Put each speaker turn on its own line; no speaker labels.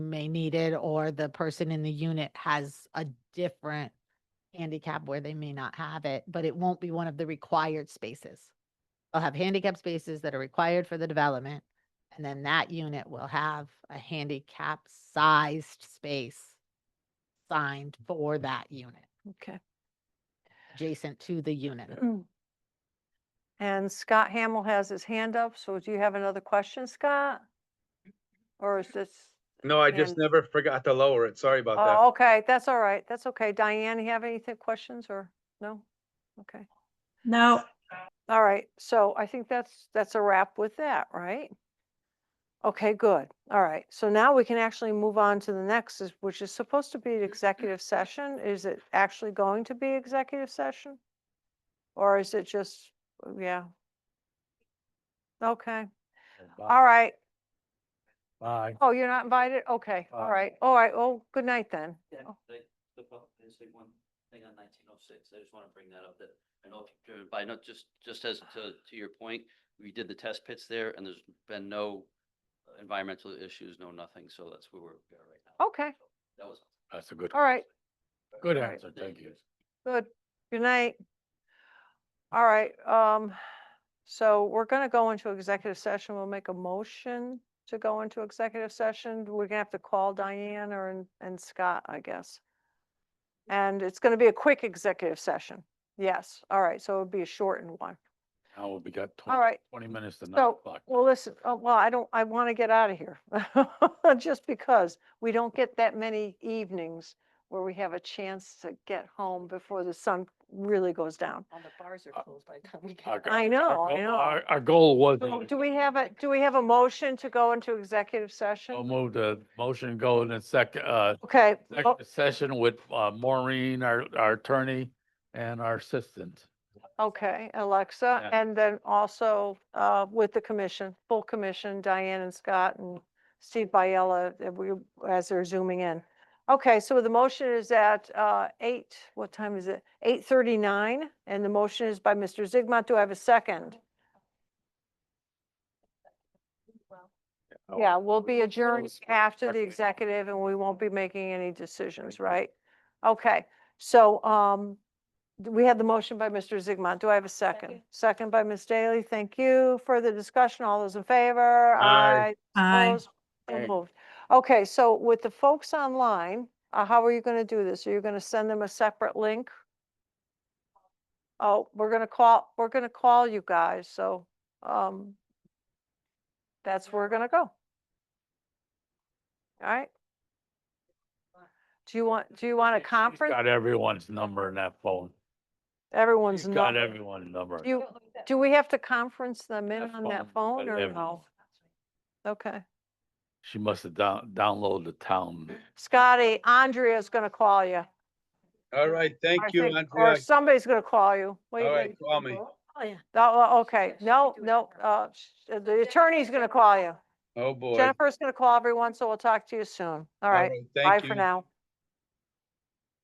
may need it or the person in the unit has a different handicap where they may not have it, but it won't be one of the required spaces. They'll have handicap spaces that are required for the development. And then that unit will have a handicap sized space signed for that unit,
Okay.
adjacent to the unit.
And Scott Hamill has his hand up, so do you have another question, Scott? Or is this,
No, I just
And-
never forgot to lower it. Sorry about that.
oh, okay, that's all right, that's okay. Diane, you have anything, questions or, no? Okay,
No,
all right, so I think that's, that's a wrap with that, right? Okay, good, all right, so now we can actually move on to the next, is- which is supposed to be an executive session. Is it actually going to be executive session? Or is it just, yeah? Okay. All right.
Bye.
Oh, you're not invited? Okay, all
Uh,
right, all right, oh, good night then.
Yeah,
Oh.
they, the, pub- there's like one thing on nineteen oh six, I just wanna bring that up that I know if you're driven by, not just, just as to, to your point, we did the test pits there and there's been no uh, environmental issues, no nothing, so that's where we're we are right now.
Okay.
So That was.
That's a good.
All right,
Good
all right.
answer, thank you.
good, good night. All right, um, so we're gonna go into executive session, we'll make a motion to go into executive session. We're gonna have to call Diane or, and- and Scott, I guess. And it's gonna be a quick executive session, yes, all right, so it'll be a shortened one.
Now we got
All
twenty,
right,
twenty minutes to nine
So,
o'clock.
well, listen, oh, well, I don't, I want to get out of here. Just because we don't get that many evenings where we have a chance to get home before the sun really goes down.
All the bars are
Uh,
closed by the time we get.
Our
out.
go-
I
our
know, I
goal-
know.
Our, our goal was.
So Do we have a, do we have a motion to go into executive
We'll
session?
move the motion go in a second, uh,
Okay, oh, mo-
second session with uh, Maureen, our, our attorney and our assistant.
okay, Alexa,
Yeah.
and then also uh, with the commission, full commission, Diane and Scott and Steve Biella, that we, as they're zooming in. Okay, so the motion is at uh, eight, what time is it? Eight thirty-nine, and the motion is by Mr. Zigmont. Do I have a second? Yeah, we'll be adjourned after the executive and we won't be making any decisions, right? Okay, so um, d- we had the motion by Mr. Zigmont. Do I have a second?
Second.
Second by Ms. Daly. Thank you. Further discussion. All those in favor?
Aye.
I,
Opposed? So
Aye.
moved. Okay, so with the folks online, uh, how are you going to do this? Are you going to send them a separate link? Oh, we're going to call, we're going to call you guys, so, um, that's where we're going to go. All right? Do you want, do you want a
She's
conference?
Got everyone's number in that phone.
Everyone's
She's got
number.
everyone's number.
Do you, do we have to conference them in
That
on that
phone,
phone
but
or
every-
no? Okay.
She must have down, downloaded the town.
Scotty, Andrea's going to call you.
All right,
I
thank you,
think- Or
Andrea.
somebody's gonna call you. Wait,
All right,
wait.
call me.
Oh, yeah.
Oh, oh, okay,
Yes, we
no,
do it
no,
tomorrow.
uh, sh- uh, the attorney's gonna call you.
Oh, boy.
Jennifer's gonna call everyone, so we'll talk to you soon. All right,
thank
bye for
you.
now.